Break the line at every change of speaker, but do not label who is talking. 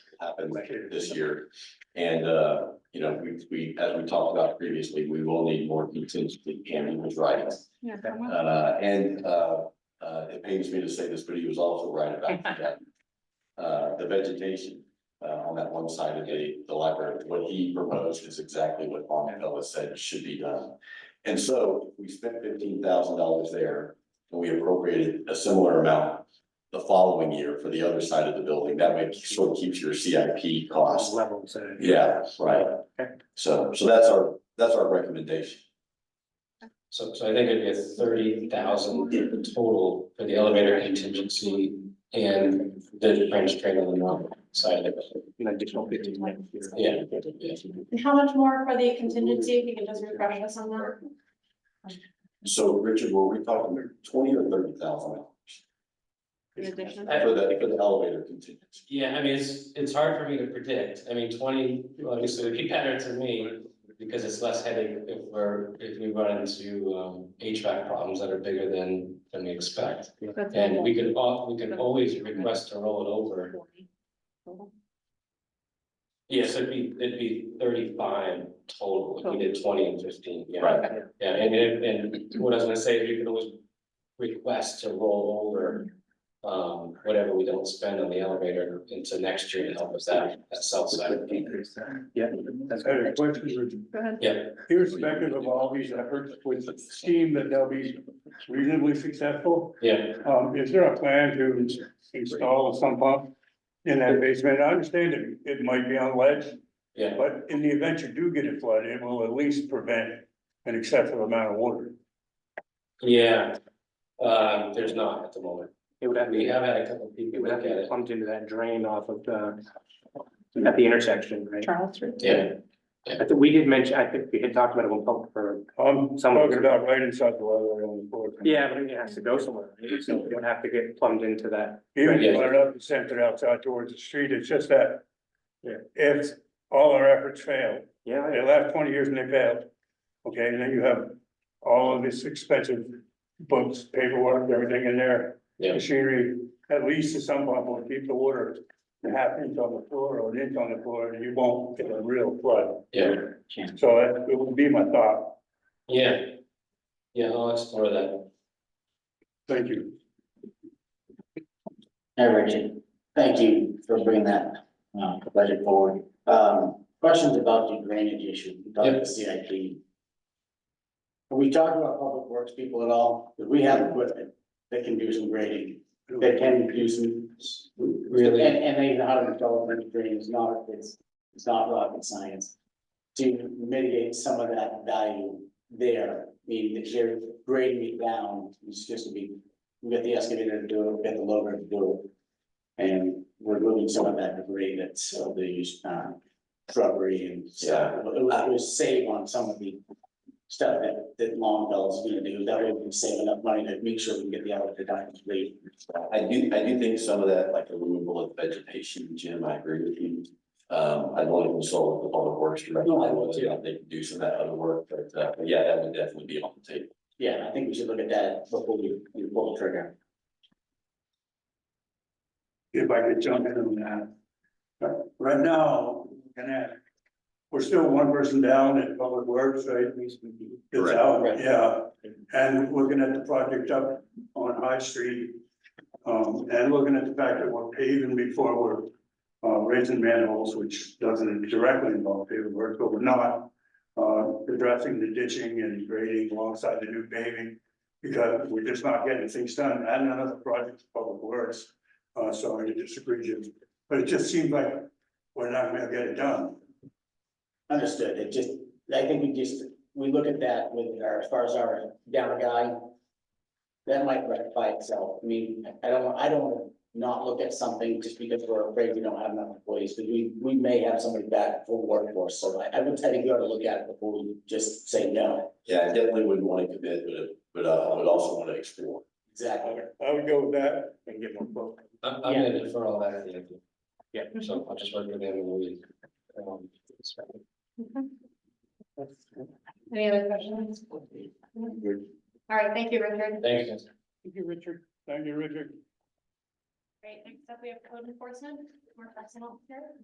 happened this year. And, uh, you know, we, we, as we talked about previously, we will need more contingency and ambulance riding.
Yeah.
Uh, and, uh, uh, it pains me to say this, but he was also right about that. Uh, the vegetation, uh, on that one side of the, the library, what he proposed is exactly what Longfellow has said should be done. And so we spent fifteen thousand dollars there and we appropriated a similar amount the following year for the other side of the building. That way it sort of keeps your CIP cost.
Level, so.
Yeah, right.
Oh, Okay.
So, so that's our, that's our recommendation.
So, so I think it'd be a thirty thousand total for the elevator contingency and the French train on the north side of it.
An additional fifteen next year.
Yeah.
And How much more for the contingency, if you can just refresh us on that?
So Richard, were we talking twenty or thirty thousand dollars
In addition?
I-
for the, for the elevator contingency?
Yeah, I mean, it's, it's hard for me to predict. I mean, twenty, obviously would be better to me because it's less headache if we're, if we run into um HVAC problems that are bigger than, than we expect.
That's
And we could, al- we could always request to roll it over. Yes, it'd be, it'd be thirty-five total, if we did twenty and fifteen, yeah.
Right.
Yeah, and if, and what I was gonna say, is you can always request to roll over. Um, whatever we don't spend on the elevator into next year to help us out, that south side.
Increase that. Yeah. that's
I had a
good.
question, Richard.
Go ahead.
Yeah,
irrespective of all these efforts with the scheme that they'll be reasonably successful,
yeah,
um, is there a plan to install a sump pump in that basement? I understand it, it might be on ledge,
yeah,
but in the event you do get it flooded, it will at least prevent an excessive amount of water.
yeah. Uh, there's not at the moment.
It would have,
We have had a couple of
it
people
would
look
have
at
to be
it.
pumped into that drain off of the, at the intersection, right?
Charles. through.
Yeah,
I think we did mention, I think we had talked about it when public for,
I'm Um, talking about right inside the library on the floor.
yeah, but it has to go somewhere, right? So it would have to get plumbed into that.
Even if you let it up and sent it outside towards the street, it's just that.
Yeah.
If all our efforts fail,
Yeah,
Right,
yeah.
the last twenty years and they failed. Okay, and then you have all of this expensive books, paperwork, everything in there.
Yeah.
Machinery, at least to some level, will keep the water a half inch on the floor or an inch on the floor, and you won't get a real flood.
yeah,
So that it would be my thought.
yeah. Yeah, I'll explore that.
Thank you.
Hi, Richard. Thank you for bringing that uh, budget forward. Um, Questions about the drainage issue, we talked about
Yes.
CIP. Have we talked about public works people at all? Because we have equipment that can do some grading, that can do some.
Really?
And, and they know how to install a drain, it's not, it's, it's not rocket science. To mitigate some of that value there, meaning that they're grading it down, it's just to be we got the excavator to do it, we got the loader to do it. And we're moving some of that debris that's of the uh shrubbery and stuff. It will- it will save on some of the stuff that that Longfellow's gonna do. That way we can save enough money to make sure we can get the elevator done completely.
I do, I do think some of that, like the removal of vegetation, Jim, I agree with you. Um, I'd want to consult with the public works director,
No, I
on
would
whether or not they can do some of that other work, but, uh, but yeah, that would definitely be on the table.
Yeah, I think we should look at that before we we pull the trigger.
if I could jump in on that. But right now, we're gonna have- we're still one person down at Public Works, right? It's
Correct.
out, yeah, and looking at the project up on High Street. Um, and looking at the fact that we're paving before we're uh raising manholes, which doesn't directly involve paving work, but we're not. Uh, addressing the ditching and grading alongside the new paving, because we're just not getting things done, and another project, Public Works. Uh, sorry to disagree, Jim, but it just seems like we're not gonna get it done.
Understood. It just, I think we just, we look at that with our, as far as our down guy. That might rectify itself. I mean, I don't, I don't wanna not look at something just because we're afraid we don't have enough employees, but we, we may have somebody back full workforce. So I, I would, I think you ought to look at it before we just say no.
Yeah, I definitely wouldn't want to commit, but, but uh, I would also want to explore.
Exactly.
I would go with that.
And get more quote.
I'm, I'm gonna defer all that. to you.
Yeah.
So I'll just work with them in a week. Um,
Okay. Any other questions? All right, thank you, Richard.
Thanks, guys.
Thank you, Richard. Thank you, Richard.
Great, next up, we have code enforcement, more personnel here.